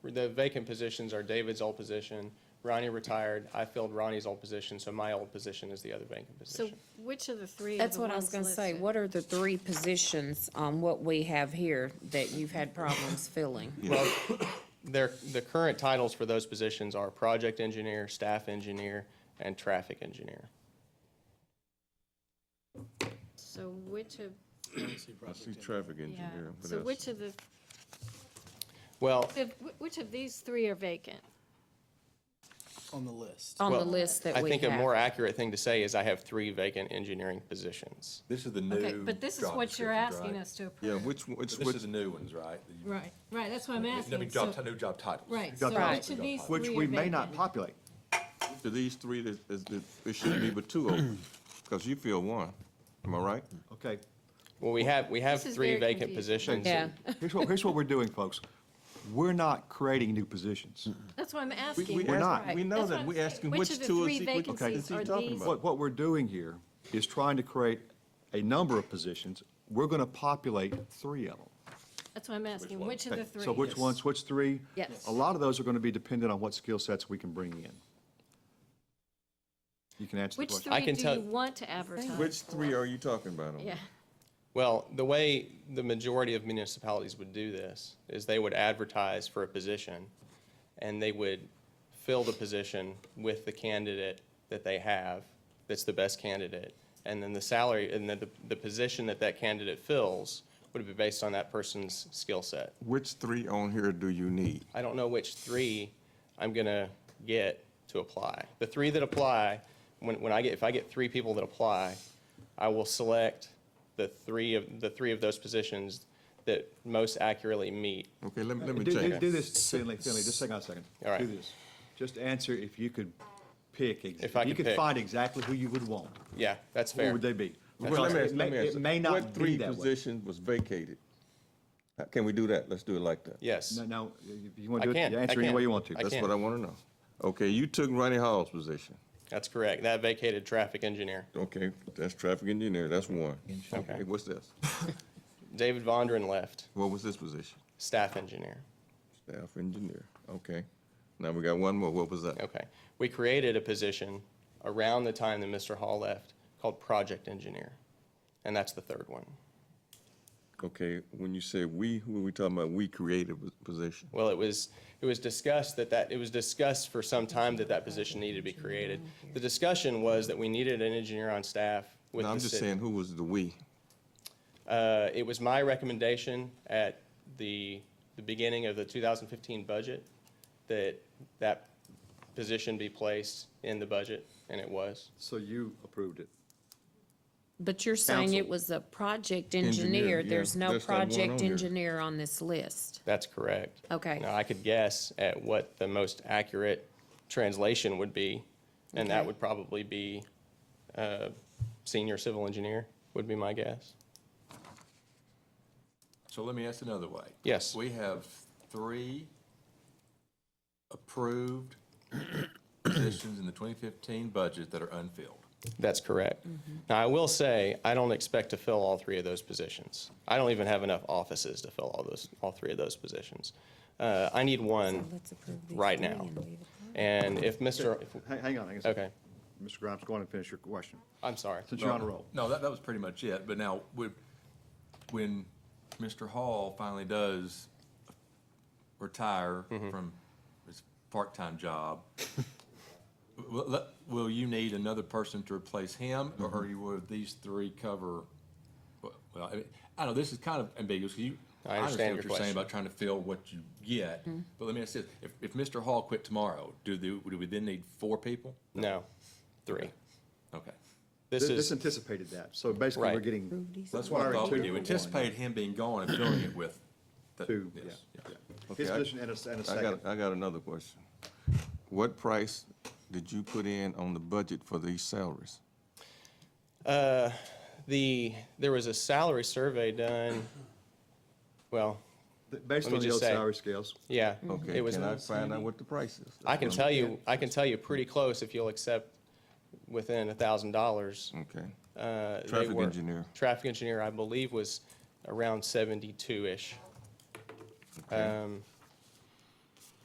the vacant positions are David's old position, Ronnie retired, I filled Ronnie's old position, so my old position is the other vacant So position. which of the three? are That's the what I was ones gonna say, listed? what are the three positions on what we have here that you've had problems filling? Well, their, the current titles for those positions are project engineer, staff engineer, and traffic engineer. So which of, I see traffic yeah, engineer. what so else? which of the, Well, wh- which of these three are vacant? on the list. On the Well, list that I we think a more have. accurate thing to say is I have three vacant engineering positions. This is the new. Okay, but this is job what you're descriptions, asking right? us to approve. Yeah, which, which, This is which, the new ones, right? Right, right, that's what I'm I asking. mean, job, So- ti- new job titles. Right, so Job which titles. of these three are Which vacant? we may not populate. of these three, that is, that it should be but two open, because you feel one, am I right? Uh, Okay, Well, we have, we have This is three very vacant confusing. positions. Yeah, here's what, here's what we're doing, folks. We're not creating new positions. Mm-hmm. That's what I'm We- asking. we We're ask- not. We know That's what that, I'm we saying. asking Which which of the two three is he, which- vacancies is he are talking these? about? What, what we're doing here is trying to create a number of positions. We're going to populate three of them. That's what I'm asking, which of Okay, the three? So which ones, which three? Yes. A lot of those are going to be dependent on what skill sets we can bring in. You can answer the Which question. I three can do tell- you want to advertise? Which three are you talking about? on Yeah, Well, the way the majority of municipalities would do this is they would advertise for a position and they would fill the position with the candidate that they have, that's the best candidate. And then the salary, and then the, the position that that candidate fills would be based on that person's skill set. Which three on here do you need? I don't know which three I'm gonna get to apply. The three that apply, when, when I get, if I get three people that apply, I will select the three of, the three of those positions that most accurately meet. Okay, let me, let me Do, do, check. do this, Finley, Finley, just hang on a second. All right. Do this. Just answer if you could pick, ex- If I you could pick. could find exactly who you would want. Yeah, that's Who fair. would they be? Well, let me Because ask- It let may, me ask it you, may not What be three that way. position was vacated? Uh, Can we do that? Let's do it like that. Yes, No, no, if you want I to do it, can, you I answer any way can, you want to. I That's can. what I want to know. Okay, you took Ronnie Hall's position. that's correct. That vacated traffic engineer. Okay, that's traffic engineer, that's one. Okay, what's this? David Vondran left, What was this position? staff engineer. Staff engineer, okay. Now we got one more, what was that? Okay. We created a position around the time that Mr. Hall left called project engineer. And that's the third one. Okay, when you say we, who are we talking about? We created a position. Well, it was, it was discussed that that, it was discussed for some time that that position needed to be created. The discussion was that we needed an engineer on staff with No, the I'm just city. saying, who was the we? Uh, it was my recommendation at the, the beginning of the 2015 budget that that position be placed in the budget, and it was. So you approved it. but you're saying it Council. was a project Engineer, engineer, yeah. there's no That's not one on project here. engineer on this list. That's correct. Okay. Now, I could guess at what the most accurate translation would be, and that Okay. would probably be uh, senior civil engineer, would be my guess. So let me ask another way. Yes. We have three approved positions in the 2015 budget that are unfilled. That's correct. Mm-hmm. Now, I will say, I don't expect to fill all three of those positions. I don't even have enough offices to fill all those, all three of those positions. Uh, I need one Let's approve these right three now. and leave it. And if Mr., if- Hang, hang on, hang on. a second. okay, Mr. Grimes, go on and finish your question, I'm sorry. since you're on a roll. No, that, that was pretty much it, but now, when, when Mr. Hall finally does retire Mm-hmm. from his part-time job, will, let- will you need another person to replace him, or Mm-hmm. are you, will these three cover? Well, I, mean, I know this is kind of ambiguous, 'cause you, I I understand understand your what you're saying question. about trying to fill what you get, but let me ask this, if, if Mr. Hall quit tomorrow, do the, do we then need four people? No, three. Okay. This This this is, anticipated that, so basically we're Right. getting. That's what I requiring thought we two do, for one. anticipate him being gone and filling it with. the- Two, yes, yeah, yeah. yeah. Okay, His I- position and a, and a I second. got, I got another question. What price did you put in on the budget for these salaries? the, there was a salary survey done, well, Th- Let Based me on the just old say- salary scales, yeah. Okay, It was. can I find out what the price is? I can tell you, I can tell you pretty close if you'll accept within a thousand dollars. Okay, Uh, they Mm. Traffic were- engineer. Traffic engineer, I believe, was around seventy-two-ish. Um,